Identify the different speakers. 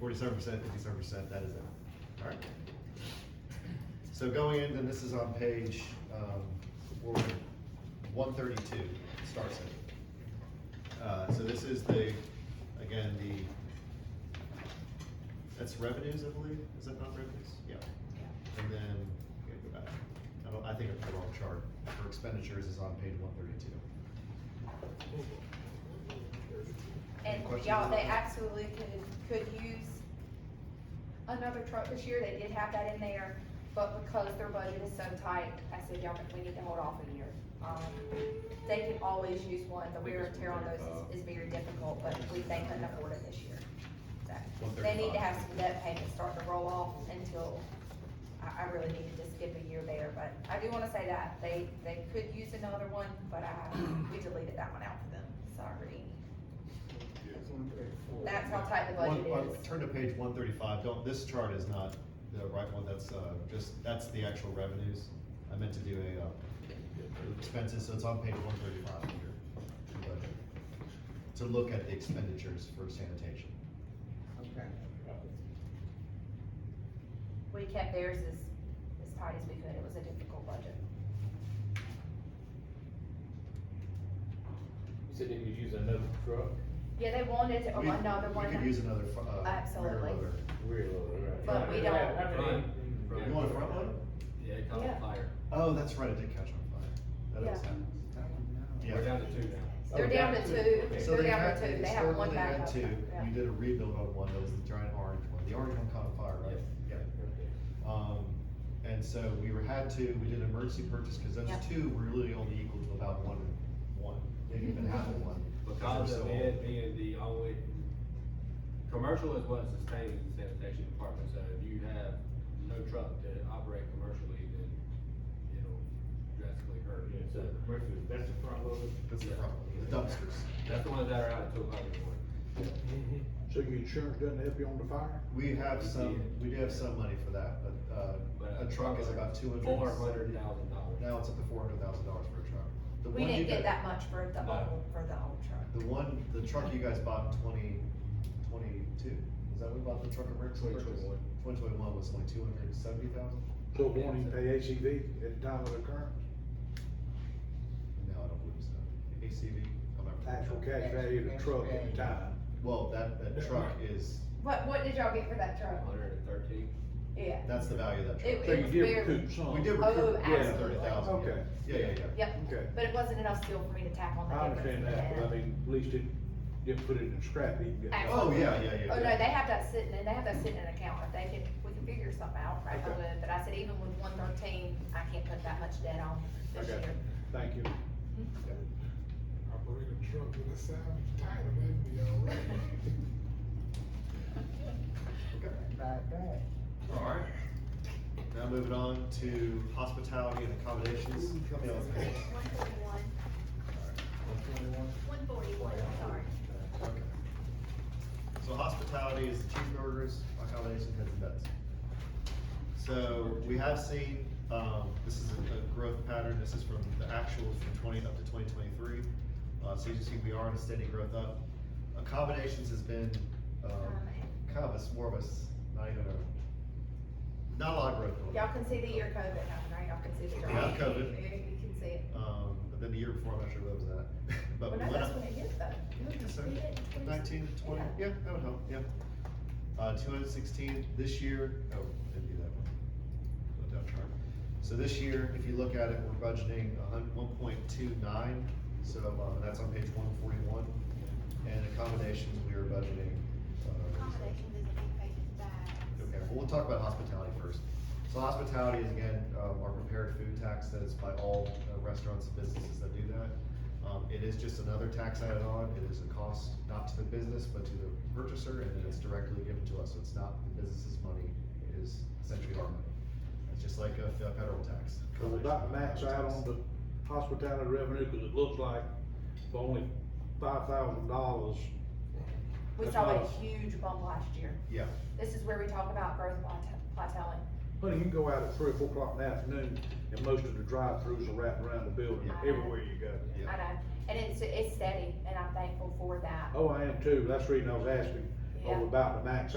Speaker 1: forty-seven percent, fifty-seven percent, that is it. All right. So going in, and this is on page, um, one thirty-two, starts it. Uh, so this is the, again, the, that's revenues, I believe, is that not revenues? Yeah. And then, we gotta go back, I don't, I think I'm the wrong chart, for expenditures is on page one thirty-two.
Speaker 2: And
Speaker 1: Questions
Speaker 2: y'all,
Speaker 1: on
Speaker 2: they
Speaker 1: that?
Speaker 2: absolutely could, could use another truck this year, they did have that in there, but because their budget is so tight, I said, y'all, we need to hold off a year. Um, They can always use one, the wear and tear on those is, is very difficult, but we, they couldn't afford it this year. So, They need to have some debt payments start to roll off until, I, I really needed to skip a year there, but I do wanna say that, they, they could use another one, but I, we deleted that one out for them, sorry. That's how tight the budget
Speaker 1: One- uh,
Speaker 2: is.
Speaker 1: Turn to page one thirty-five, don't, this chart is not the right one, that's, uh, just, that's the actual revenues. I meant to do a, uh, expenses, so it's on page one thirty-five here. your budget. To look at the expenditures for sanitation.
Speaker 3: Okay.
Speaker 2: We kept theirs as, as tight as we could, it was a difficult budget.
Speaker 4: You said they could use another truck,
Speaker 2: Yeah, they wanted to, oh,
Speaker 1: We-
Speaker 2: another one.
Speaker 1: We could use another, fu- uh, rear
Speaker 2: Absolutely.
Speaker 1: loader.
Speaker 4: rear loader, right?
Speaker 2: But we don't-
Speaker 4: How many-
Speaker 1: You want a front loader?
Speaker 5: Yeah, it caught
Speaker 2: Yeah.
Speaker 5: on fire.
Speaker 1: Oh, that's right, it did catch on fire. That is
Speaker 2: Yeah.
Speaker 1: happening.
Speaker 5: We're
Speaker 1: Yeah.
Speaker 5: down to two now.
Speaker 2: They're
Speaker 4: Okay.
Speaker 2: down to two,
Speaker 1: So
Speaker 2: they're
Speaker 1: they
Speaker 2: down
Speaker 1: had,
Speaker 2: to two, they have one
Speaker 1: historically they had
Speaker 2: backup.
Speaker 1: two,
Speaker 2: Yeah.
Speaker 1: you did a rebuild on one, that was the giant orange one, the orange one caught on fire, right? Yeah.
Speaker 4: Okay.
Speaker 1: Um, and so we were, had to, we did an emergency purchase, cause those
Speaker 2: Yeah.
Speaker 1: two were really only equal to about one, one, maybe even half of
Speaker 2: Mm-hmm.
Speaker 1: one.
Speaker 5: Because
Speaker 1: They're so
Speaker 5: of
Speaker 1: old.
Speaker 5: it being the only, commercial is what sustains the sanitation department, so if you have no truck to operate commercially, then it'll drastically hurt.
Speaker 4: Yeah, so commercial, that's the front loader?
Speaker 1: That's the problem, the dumpsters.
Speaker 5: That's the ones that are out at two o'clock in the morning.
Speaker 3: So your insurance doesn't help you on the fire?
Speaker 1: We have some, we do have some money for that, but, uh,
Speaker 5: But
Speaker 1: a truck is about two hundred.
Speaker 5: Four hundred thousand dollars.
Speaker 1: Now it's up to four hundred thousand dollars for a truck. The
Speaker 2: We
Speaker 1: one you
Speaker 2: didn't get that
Speaker 1: got-
Speaker 2: much for the
Speaker 5: No.
Speaker 2: old, for the old truck.
Speaker 1: The one, the truck you guys bought in twenty twenty-two, is that what we bought the truck emergency purchase?
Speaker 5: 2021.
Speaker 1: Twenty twenty-one was like two hundred and seventy thousand?
Speaker 3: So it won't even pay ACV at the time of occurrence?
Speaker 1: No, I don't believe so. ACV? I'm not really
Speaker 3: Actual
Speaker 1: sure.
Speaker 3: cash value of the truck at the time.
Speaker 1: Well, that, that truck is,
Speaker 2: What, what did y'all get for that truck?
Speaker 5: Hundred and thirteen.
Speaker 2: Yeah.
Speaker 1: that's the value of that
Speaker 2: It-
Speaker 1: truck.
Speaker 3: So you
Speaker 2: was
Speaker 3: did
Speaker 2: very-
Speaker 3: recoup some.
Speaker 1: We did
Speaker 2: Oh,
Speaker 1: recoup, yeah,
Speaker 2: absolutely.
Speaker 1: thirty thousand.
Speaker 3: Okay.
Speaker 1: Yeah, yeah, yeah.
Speaker 2: Yep,
Speaker 3: Okay.
Speaker 2: but it wasn't enough still for me to tack on the
Speaker 3: I
Speaker 2: difference.
Speaker 3: understand that, but I mean, at least it didn't put it in scrap heap. didn't it?
Speaker 1: Oh, yeah, yeah, yeah.
Speaker 2: Oh, no, they have that sitting, and they have that sitting in an account, if they can, we can figure something out, right, I
Speaker 3: Okay.
Speaker 2: would, but I said even with one thirteen, I can't put that much debt on this
Speaker 3: Okay.
Speaker 2: year.
Speaker 3: Thank you.
Speaker 6: Operate a truck with a salvage title, that'd be all right.
Speaker 1: All right. Now moving on to hospitality and accommodations. Coming on.
Speaker 7: Page one forty-one, one forty-one, sorry.
Speaker 1: Okay. So hospitality is the cheeseburgers, accommodations, heads and beds. So we have seen, um, this is a a growth pattern, this is from the actuals from twenty up to twenty twenty-three. Uh, so you can see we are in a steady growth up. Accommodations has been, um, kind of a s- more of a, s- not even a, not a lot of growth. going on.
Speaker 2: Y'all can see the year COVID happened, right, y'all can see the.
Speaker 1: Yeah, COVID.
Speaker 2: You can see it.
Speaker 1: Um, but then the year before, I'm not sure what was that, but
Speaker 2: Well,
Speaker 1: we
Speaker 2: no,
Speaker 1: went
Speaker 2: that's
Speaker 1: up-
Speaker 2: when it hit though.
Speaker 1: Yeah, I guess so.
Speaker 7: We did 20.
Speaker 1: Nineteen to twenty,
Speaker 2: Yeah.
Speaker 1: yeah, that would help, yeah. Uh, two hundred sixteen this year, oh, didn't do that one. Go down chart. So this year, if you look at it, we're budgeting a hun, one point two nine, so, uh, that's on page one forty-one. And accommodations, we are budgeting, uh.
Speaker 7: Accommodations is a big page, it's bad.
Speaker 1: Okay, well, we'll talk about hospitality first. So hospitality is again, um, our prepared food tax that is by all uh, restaurants and businesses that do that. Um, it is just another tax added on, it is a cost not to the business, but to the purchaser, and then it's directly given to us, so it's not the business's money, it is essentially our money. It's just like a fe- federal tax.
Speaker 3: Cause we're not max out on the hospitality revenue, cause it looks like for only five thousand dollars.
Speaker 2: We
Speaker 3: That's
Speaker 2: saw a
Speaker 3: not-
Speaker 2: huge bump last year.
Speaker 1: Yeah,
Speaker 2: This is where we talk about growth plate- plateauing.
Speaker 3: Honey, you can go out at three or four o'clock in the afternoon and most of the drive-throughs are wrapped around the building,
Speaker 2: Yeah.
Speaker 3: everywhere you go.
Speaker 1: yeah.
Speaker 2: I know, and it's, it's steady, and I'm thankful for that.
Speaker 3: Oh, I am too. That's the reason I was asking,
Speaker 2: Yeah.
Speaker 3: over about the max